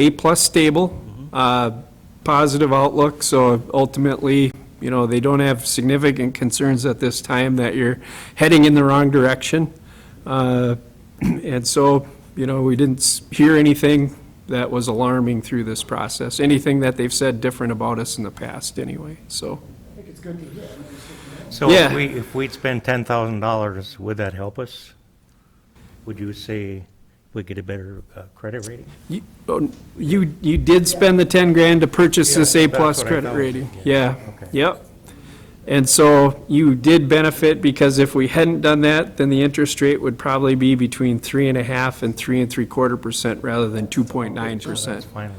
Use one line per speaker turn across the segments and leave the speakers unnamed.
A-plus stable, uh, positive outlook, so ultimately, you know, they don't have significant concerns at this time that you're heading in the wrong direction. Uh, And so, you know, we didn't s- hear anything that was alarming through this process, anything that they've said different about us in the past, anyway, so.
So if
Yeah.
we, if we'd spend ten thousand dollars, would that help us? Would you say we get a better uh, credit rating?
You, oh, you you did spend the 10 grand to purchase this
Yeah, that's
A-plus
what I
credit
thought.
rating.
Yeah,
Yeah,
okay.
yep. And so you did benefit, because if we hadn't done that, then the interest rate would probably be between 3.5 and 3 and 3 quarter percent rather than 2.9 percent.
Finalized,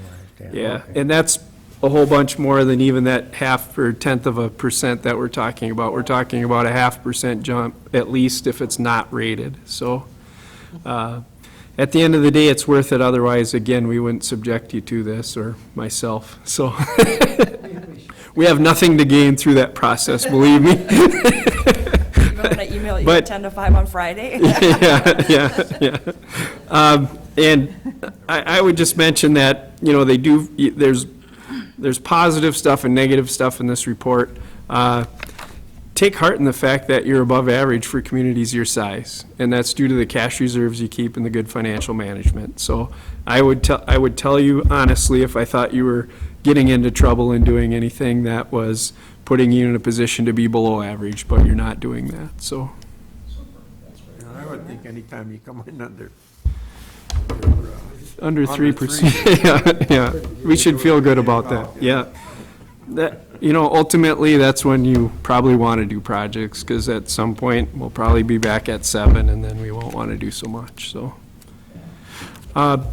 yeah.
Yeah,
okay.
and that's a whole bunch more than even that half or tenth of a percent that we're talking about. We're talking about a half percent jump, at least if it's not rated, so. uh, At the end of the day, it's worth it, otherwise, again, we wouldn't subject you to this, or myself, so. We have nothing to gain through that process, believe me.
I'm gonna email you
But-
at 10 to 5 on Friday.
Yeah, yeah, yeah. Um, And I, I would just mention that, you know, they do, there's, there's positive stuff and negative stuff in this report. Uh, Take heart in the fact that you're above average for communities your size, and that's due to the cash reserves you keep and the good financial management. So I would tell, I would tell you honestly, if I thought you were getting into trouble and doing anything that was putting you in a position to be below average, but you're not doing that, so.
And I would think anytime you come in under,
Under three
Under
percent, yeah, yeah, we should feel good about that, yeah. That, you know, ultimately, that's when you probably want to do projects, because at some point, we'll probably be back at seven, and then we won't want to do so much, so. Uh,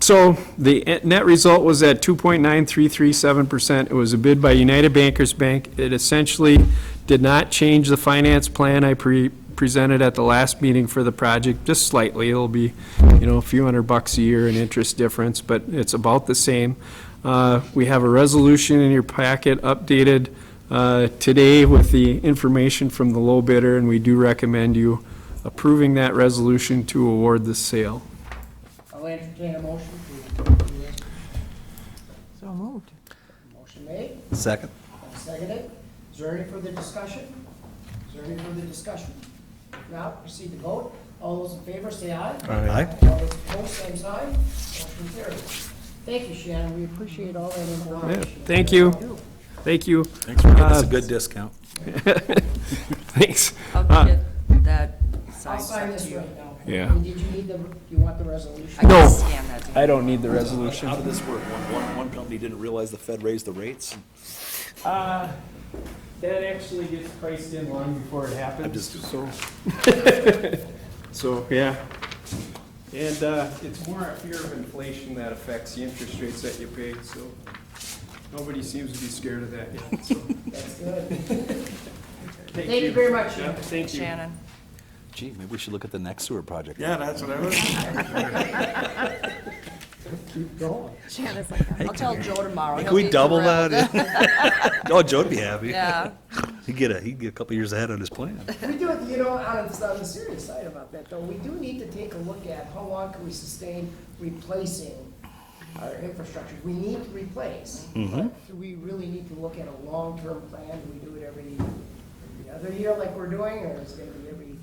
So, the e- net result was at two point nine three three seven percent, it was a bid by United Bankers Bank, it essentially did not change the finance plan I pre, presented at the last meeting for the project, just slightly, it'll be you know, a few hundred bucks a year in interest difference, but it's about the same. Uh, We have a resolution in your packet updated uh, today with the information from the low bidder, and we do recommend you approving that resolution to award the sale.
I'll entertain a motion to approve this.
So moved.
Motion made,
Second.
and seconded. Is there any further discussion? Is there any further discussion? If Not proceed to vote. All those in favor, say aye.
Aye.
All those opposed, same sign. Motion carries. Thank you, Shannon. We appreciate all that
Yeah,
information.
Thank you, thank you,
Thanks for giving us
Uh,
a good discount.
thanks.
I'll get that
I'll
signed
sign
stuff
this
to you.
right now.
Yeah.
I mean, Did you need the, do you want the resolution?
I can
No.
scan that to you.
don't need the resolution.
How did this work? One, one, one company didn't realize the Fed raised the rates?
Uh, That actually gets priced in long before it happens.
just doing
so. So, yeah. And uh, it's more a fear of inflation that affects the interest rates that you pay, so nobody seems to be scared of that yet, so.
That's good. Thank you very
Yeah,
much, Shannon.
Thank you.
Shannon.
Gee, maybe we should look at the next sewer project.
yeah, that's what I was,
Keep going.
Shannon's like, I'll tell Joe tomorrow.
Can
He'll
we
be
double
thrilled."
that? Oh, Joe'd be happy.
Yeah.
He'd get a, he'd get a couple years ahead on his plan.
We do, you know, on the, on the serious side about that, though, we do need to take a look at how long can we sustain replacing our infrastructure. We need to replace, but do we really need to look at a long-term plan? Do we do it every, every other year like we're doing, or is it gonna be every?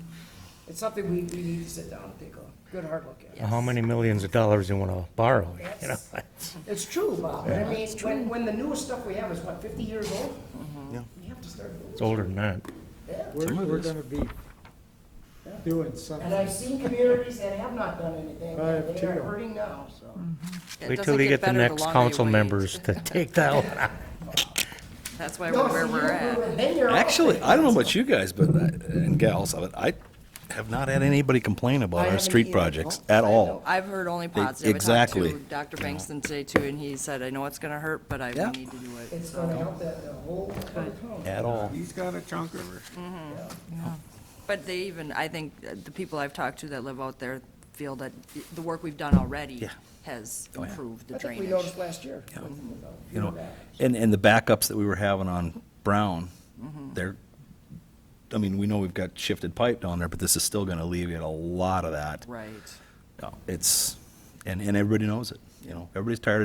It's something we, we need to sit down and take a good hard look at.
How many millions of dollars you wanna borrow, you know?
That's- It's true, Bob, but I mean, when, when the newest stuff we have is, what, fifty years old?
Mm-hmm.
We have to start
It's
moving.
older than that.
Yeah.
We're, we're gonna be doing something.
And I've seen communities that have not done anything,
I have
and they are
too.
hurting now, so.
It
Wait till
doesn't
we get the
better
next
longer you
council
wait.
members to take that one out.
That's why
No,
we're where
see,
we're
you-
at.
then you're off.
Actually, I don't know about you guys, but, I- and gals, but I have not had anybody complain
I
about our
haven't
street
either.
projects at all.
I've heard only positive. I talked
exactly.
to Dr. Bankston today too, and he said, I know it's gonna hurt, but I
Yeah.
need to do it.
It's
So-
gonna help that, the whole, town.
At all.
he's got a chunk of her.
But they even, I think, uh, the people I've talked to that live out there feel that the- the work we've done already has
Oh, yeah.
improved the
I think we
drainage.
noticed last year.
you know, and, and the backups that we were having on Brown, they're, I mean, we know we've got shifted pipe down there, but this is still gonna alleviate a lot of that.
Right.
No, It's, and, and everybody knows it, you know, everybody's tired of